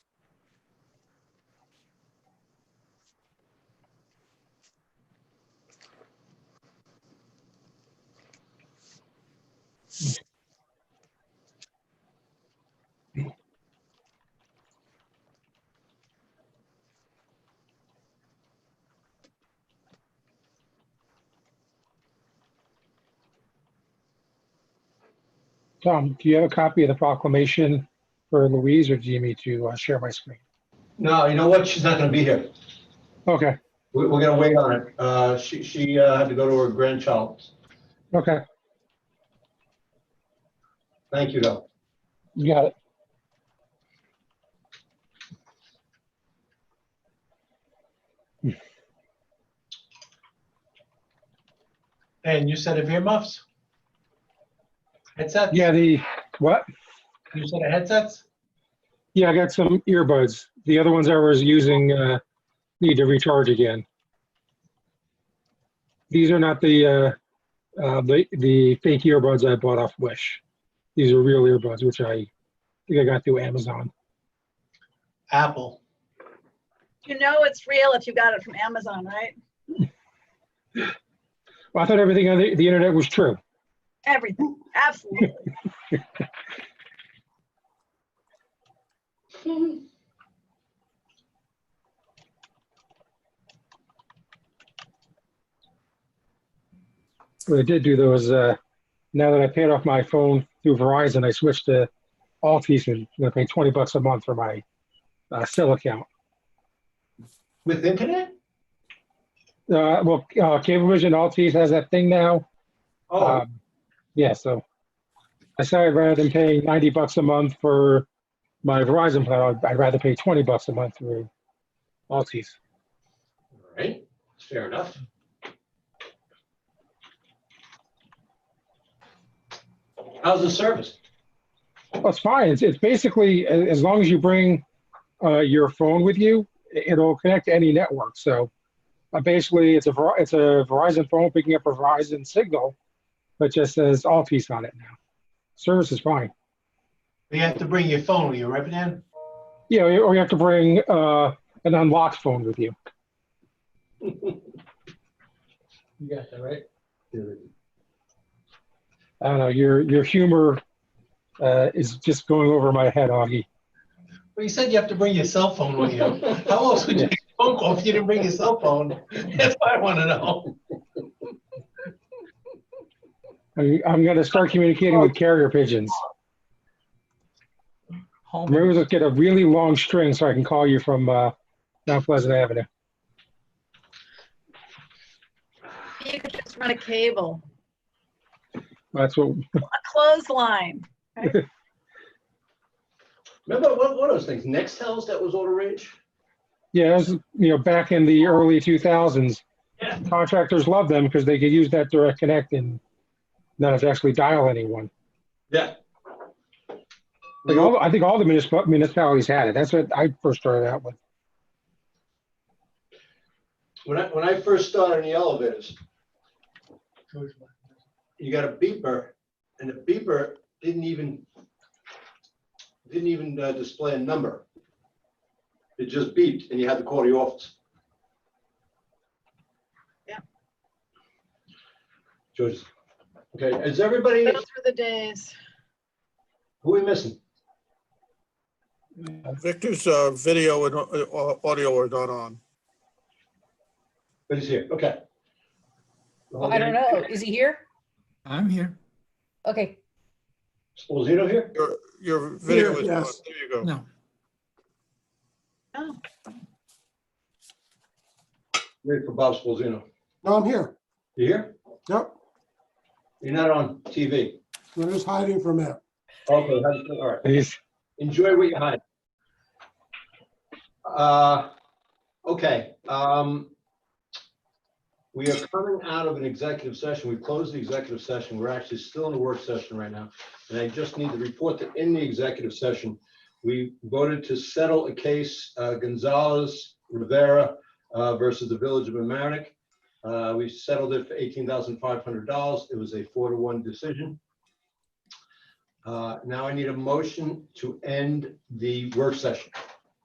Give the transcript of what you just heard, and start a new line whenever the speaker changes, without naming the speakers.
Tom, do you have a copy of the proclamation for Louise, or do you need me to uh, share my screen?
No, you know what? She's not going to be here.
Okay,
We- We're going to wait on it. Uh, She, she uh, had to go to her grandchild.
okay,
Thank you, though.
you got it.
And you said of earmuffs? Headsets?
Yeah, the, what?
You said of headsets?
Yeah, I got some earbuds. The other ones I was using uh, need to recharge again. These are not the uh, uh, the the fake earbuds I bought off Wish. These are real earbuds, which I think I got through Amazon.
Apple.
You know it's real if you got it from Amazon, right?
Well, I thought everything on the, the internet was true.
Everything, absolutely.
What I did do though is uh, now that I paid off my phone through Verizon, I switched to Altice and I pay twenty bucks a month for my uh, cell account.
With internet?
Uh, well, uh, Cablevision Altice has that thing now.
Oh,
Um, Yeah, so I said rather than paying 90 bucks a month for my Verizon plan, I'd- I'd rather pay 20 bucks a month through Altice.
all right. Fair enough. How's the service?
That's fine. It's, it's basically, a- as long as you bring uh, your phone with you, i- it'll connect to any network. So uh, basically, it's a, Ver- it's a Verizon phone picking up a Verizon signal, but just says Altice on it now. Service is fine.
You have to bring your phone with you, right, Dan?
Yeah, or you- or you have to bring uh, an unlocked phone with you.
You got that, right?
I don't know. Your your humor uh, is just going over my head, Augie.
Well, you said you have to bring your cell phone with you. How else would you get a phone call if you didn't bring your cell phone? That's what I want to know.
I'm, I'm going to start communicating with carrier pigeons.
Home,
Maybe we'll get a really long string so I can call you from uh, down Pleasant Avenue.
You could just run a cable,
That's what.
a clothesline.
Remember one one of those things, Nextels that was all the rage?
Yeah, it was, you know, back in the early 2000s,
Yeah.
contractors loved them because they could use that direct connect and not have to actually dial anyone.
Yeah.
Like all, I think all the municipal, municipalities had it. That's what I first started out with.
When I, when I first started in the elevators, you got a beeper, and the beeper didn't even, didn't even uh, display a number. It just beeped, and you had to call the office.
Yeah.
George, okay, is everybody,
Those were the days.
who are we missing?
Victor's uh, video and uh, audio are not on.
Who's here, okay.
I don't know. Is he here?
I'm here.
Okay.
Was Zito here?
Your, your video is on. There you go.
No,
Oh,
Wait for Bob Spalzino.
No, I'm here.
You here?
Yep,
You're not on TV.
I'm just hiding for a minute.
Okay, that's- all right.
These-
Enjoy what you had. Uh, okay, um, we are coming out of an executive session. We closed the executive session. We're actually still in a work session right now. And I just need to report that in the executive session, we voted to settle a case, uh, Gonzalez Rivera, uh, versus the Village of Amerenik. Uh, we settled it for eighteen thousand five hundred dollars. It was a four to one decision. Uh, Now I need a motion to end the work session.